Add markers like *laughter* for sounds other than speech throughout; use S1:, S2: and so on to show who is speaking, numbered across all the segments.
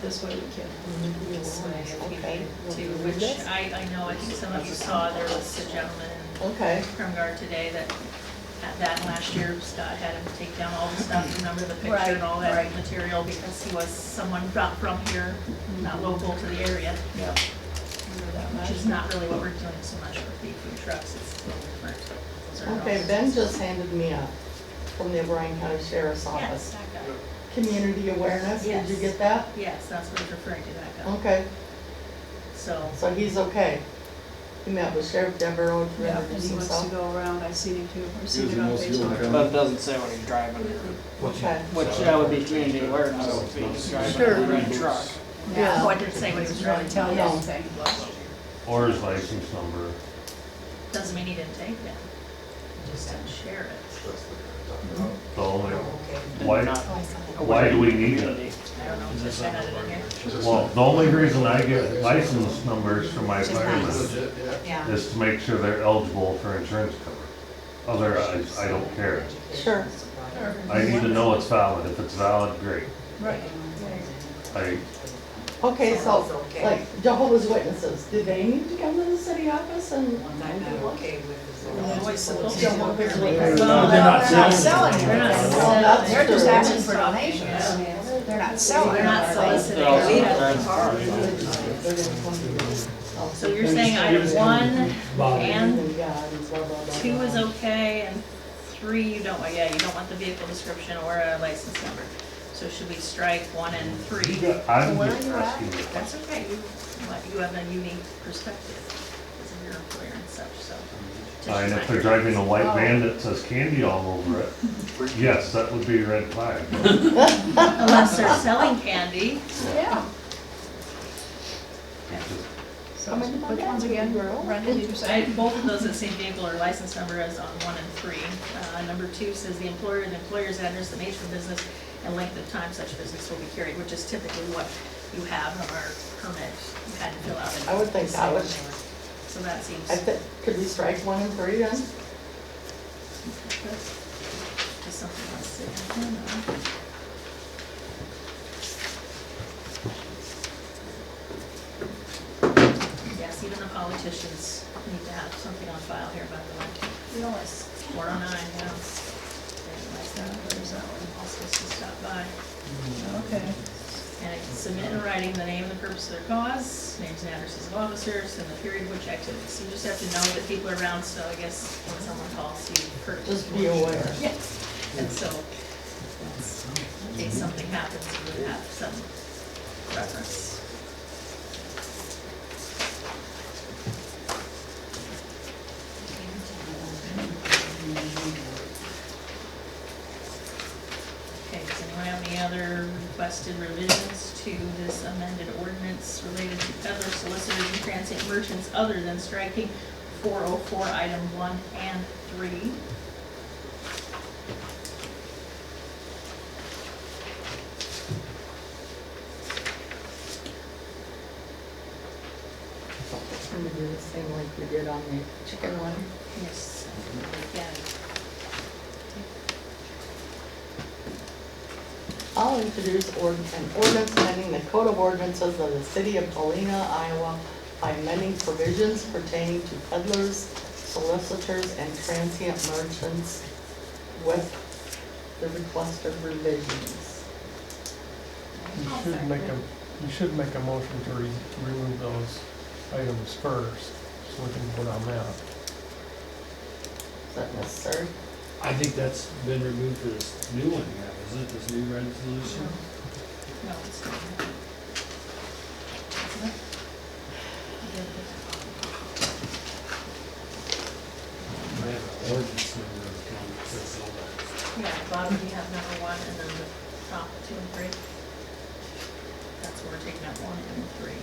S1: this way we can.
S2: This way, if we
S3: Okay.
S2: need to, which I, I know, I think some of you saw, there was a gentleman
S3: Okay,
S2: in Guard today that had that last year, Scott had him take down all the stuff, remember the picture
S1: Right,
S2: and all that
S1: right.
S2: material, because he was someone not from here, not local to the area,
S1: Yeah.
S2: which is not really what we're doing so much with the food trucks, it's a little different. Those are
S3: okay,
S2: all-
S3: Ben just handed me a, from the O'Brien County Sheriff's
S2: Yes,
S3: Office,
S2: that guy,
S3: community awareness, did you
S2: Yes.
S3: get that?
S2: yes, that's what he's referring to, that guy,
S3: Okay,
S2: so,
S3: so he's okay. He met with Sheriff Devereaux to
S1: Yeah, and
S3: introduce
S1: he wants to
S3: himself.
S1: go around, I've seen him too, I've seen
S4: Using
S1: it on
S4: those fuel
S1: Facebook.
S5: But it
S4: accounts.
S5: doesn't say when he's driving,
S3: Okay,
S5: which that would be community awareness if he's driving a red truck.
S3: Yeah.
S2: oh, I didn't say what he was
S1: Really
S2: really telling,
S1: tell you
S3: No.
S1: anything.
S6: Or his license number.
S2: doesn't mean he didn't take it, just didn't share it,
S6: So like,
S5: and
S6: Why-
S5: not
S6: why do we need it?
S5: community.
S2: I don't know, just had it in here.
S6: Well, the only reason I get license numbers for my firemen
S4: Legit, yeah.
S7: Yeah.
S6: is to make sure they're eligible for insurance cover. Otherwise, I don't care.
S3: Sure.
S6: I need to know it's valid. If it's valid, great.
S1: Right.
S6: I,
S3: okay,
S7: Sounds
S3: so,
S7: okay.
S3: like Jehovah's Witnesses, do they need to come to the city office and?
S7: I'm not okay with
S2: Oh,
S7: this.
S3: Jehovah's
S1: Well,
S3: Witnesses.
S1: no, they're not selling
S2: They're not
S1: anything.
S2: selling.
S1: They're just asking for
S2: Yeah.
S1: donations. They're not selling.
S2: They're not
S1: anything.
S2: soliciting.
S5: They're also
S7: Leave it.
S5: driving cars.
S2: So you're saying item one and two is okay, and three, you don't, want- yeah, you don't want the vehicle description or a license number. So should we strike one and three?
S6: I'm just asking you.
S2: That's okay, you, you have a unique perspective as a your employer and such, so. just
S6: And if
S2: remind
S6: they're
S2: you.
S6: driving a white van that says candy all over it, yes, that would be a red flag.
S2: *laughs* Unless they're selling candy,
S1: Yeah.
S3: How many
S1: Which ones again, Brenda, did you
S2: So I-
S1: say?
S2: both of those, that same vehicle or license number as on one and three. Uh, number two says the employer, the employer's address, the nature of business, and length of time such business will be carried, which is typically what you have on our permit, you had to fill out.
S3: I would think that would,
S2: So that seems.
S3: I think, could we strike one and three then?
S2: Just something else to add uh. on. Yes, even the politicians need to have something on file here, by the way. Four oh nine, yeah. Realize that, there's that one, all supposed to stop by.
S1: Okay.
S2: And submit in writing the name and the purpose of their cause, names and addresses of officers, and the period which activities. So you just have to know that people are around, so I guess when someone calls, you first.
S3: Just be aware.
S2: Yes, and so, that's- in case something happens, you would have some reference. Okay, does anyone have any other requested revisions to this amended ordinance related to peddlers, solicitors, and transient merchants other than striking four oh four item one and three?
S3: Can we do the same like we did on the chicken one?
S2: Yes, again.
S3: I'll introduce ord- an ordinance amending the code of ordinances of the city of Paulina, Iowa by amending provisions pertaining to peddlers, solicitors, and transient merchants with the request of revisions.
S8: You should make a, you should make a motion to re- remove those items first, so we can vote on that.
S3: Is that necessary?
S4: I think that's been removed for this new one, yeah, isn't it, this new resolution?
S2: No, it's not. Isn't it?
S4: I have an ordinance number that kind of says all that.
S2: Yeah, bottom you have number one and then the top two and three. That's where we're taking out one and three.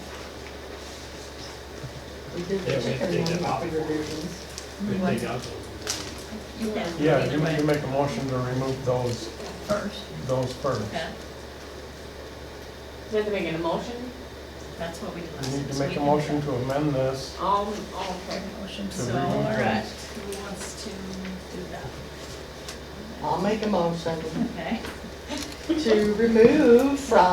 S3: We did
S4: Yeah,
S3: the
S4: we
S3: chicken
S4: did it
S3: one
S4: out.
S3: with the revisions.
S4: We take out those.
S2: You can.
S8: Yeah,
S2: either
S8: you,
S2: way.
S8: you make a motion to remove those,
S1: First.
S8: those first.
S2: Okay,
S7: Is that making a motion?
S2: that's what we did last
S8: You
S2: time.
S8: need to
S2: so we
S8: make a
S2: can-
S8: motion to amend this.
S7: Um, okay.
S1: Motion.
S8: to
S2: So,
S8: remove
S2: all right,
S8: those.
S2: who wants to do that?
S3: I'll make a motion
S2: Okay.
S3: to remove from